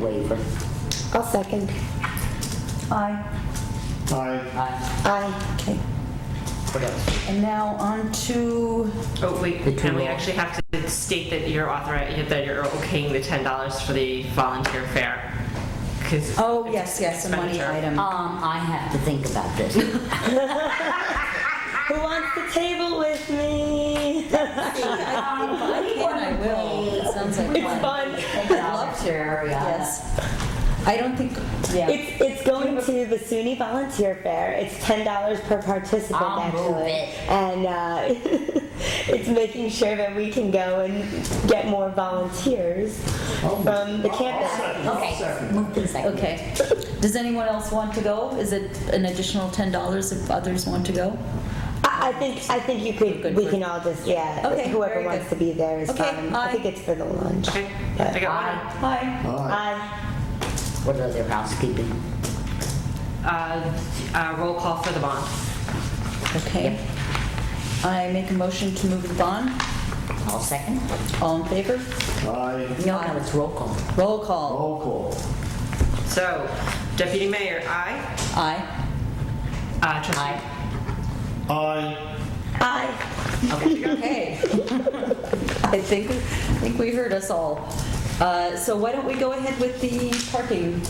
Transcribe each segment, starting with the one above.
waiver. I'll second. Aye. Aye. Aye. Aye. Okay. What else? And now on to, Oh, wait, The two and we law- actually have to state that you're authorized, that you're okaying the $10 for the volunteer fare. 'cause oh, yes, it's yes, a money expenditure. item. Um, I have to think about this. Who wants the table with me? Um, I will. It sounds like It's fun. Love to, yes. Yes. I don't think, yeah. It's, it's going to the SUNY Volunteer Fair. It's ten dollars per participant, I'll actually, move it. and uh, it's making sure that we can go and get more volunteers from the campus. Okay, moved and seconded. Okay. Does anyone else want to go? Is it an additional $10 if others want to go? I, I think I think you could. Good We for- can all just yeah. Okay, whoever very wants good. to be there is Okay, fine. aye. I think it's for the lunch. Okay, but- I got one. Aye. Hi. Aye. What other housekeeping? Uh, uh, Roll call for the bond. Okay. I make a motion to move the bond. All second? All in favor? Aye. No, no, it's roll call. Roll call. Roll call. So Deputy Mayor, aye. Aye. Uh, Trustee Aye. Aye. Aye. Okay. I think, I think we heard us all. Uh, So why don't we go ahead with the parking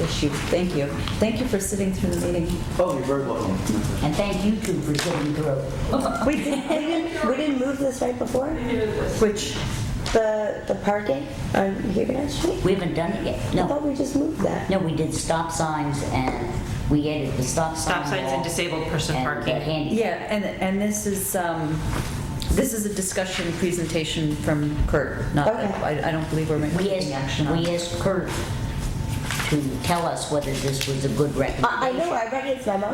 issue? Thank you. Thank you for sitting through the meeting. Oh, you're very welcome. And thank you two for sitting through. We, did, we didn't we didn't move this right before Which, the the parking on Huguenot Street. We haven't done it yet. I No, thought we just moved that. no, we did stop signs and we added the stop sign. Stop signs and law disabled person and the parking. handi- yeah, and, and this is, um, this is a discussion presentation from Kurt, not, that- I I don't believe we're We making asked, action on we it. asked Kurt to tell us whether this was a good I I recommendation. know, I read his memo.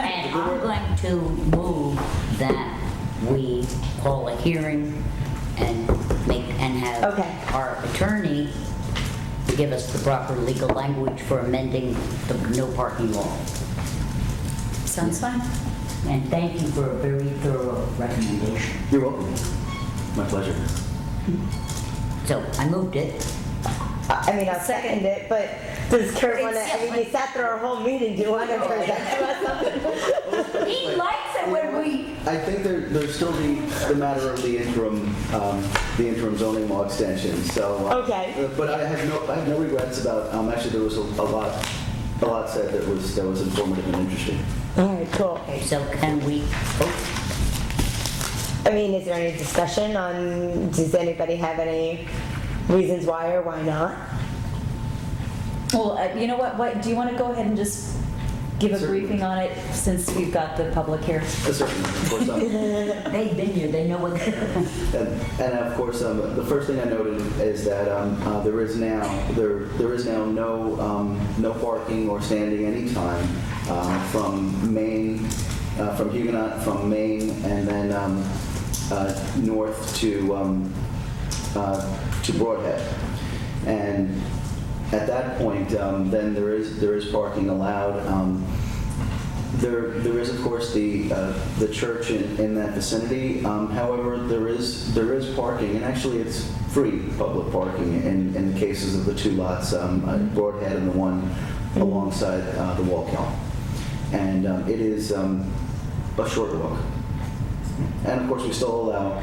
And I'm going to move that we call a hearing and make, and have Okay. our attorney give us the proper legal language for amending the no parking law. Sounds fine. And thank you for a very thorough recommendation. You're welcome. My pleasure. So I moved it. I mean, I'll second it, but does Kurt want to, I mean, you sat through our whole meeting, do you want to present to us something? He likes it when we. I think there, there's still the, the matter of the interim, um, the interim zoning law extension, so. uh, Okay. uh, But I have no, I have no regrets about, um, actually, there was a a lot, a lot said that was, that was informative and interesting. All right, cool. So can we, oh, I mean, is there any discussion on, does anybody have any reasons why or why not? Well, uh, you know what, what, do you want to go ahead and just give a Certainly. briefing on it since we've got the public here? Uh, Certainly, of course, um, they've been here, they know what. And, and of course, um, the first thing I noted is that um, uh, there is now there there is now no um, no parking or standing anytime um, from Maine, uh, from Huguenot, from Maine, and then um, uh, north to um, uh, to Broadhead, and at that point, um, then there is there is parking allowed. Um, there, there is of course the, uh, the church in, in that vicinity. Um, however, there is, there is parking, and actually it's free public parking in, in the cases of the two lots, um, at Broadhead and the one alongside uh, the Wallkill. And um, it is um, a short walk. And of course, we still allow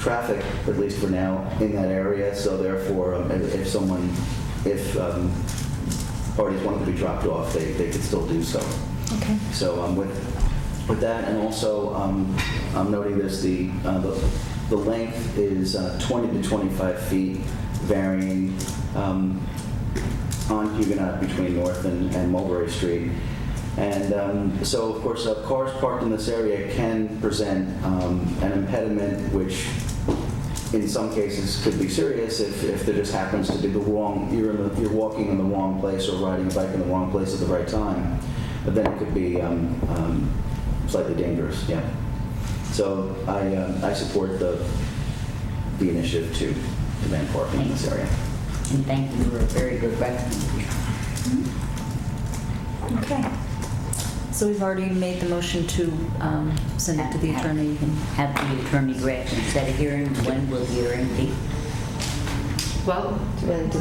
traffic, at least for now, in that area. So therefore, um, if, if someone, if um, parties wanted to be dropped off, they, they could still do so. Okay. So um, with, with that, and also um, I'm noting this, the, uh, the the length is uh, 20 to 25 feet varying um, on Huguenot between North and and Mulberry Street. And um, so, of course, uh, cars parked in this area can present um, an impediment which in some cases could be serious if, if there just happens to be the wrong, you're, in the, you're walking in the wrong place or riding a bike in the wrong place at the right time, but then it could be um, um, slightly dangerous, yeah. So I, um, I support the, the initiative to demand parking in this area. And thank you for a very good recommendation. Okay. So we've already made the motion to um, send it to the attorney. Have the attorney draft and set a hearing, when will the hearing be? Well, Do you want to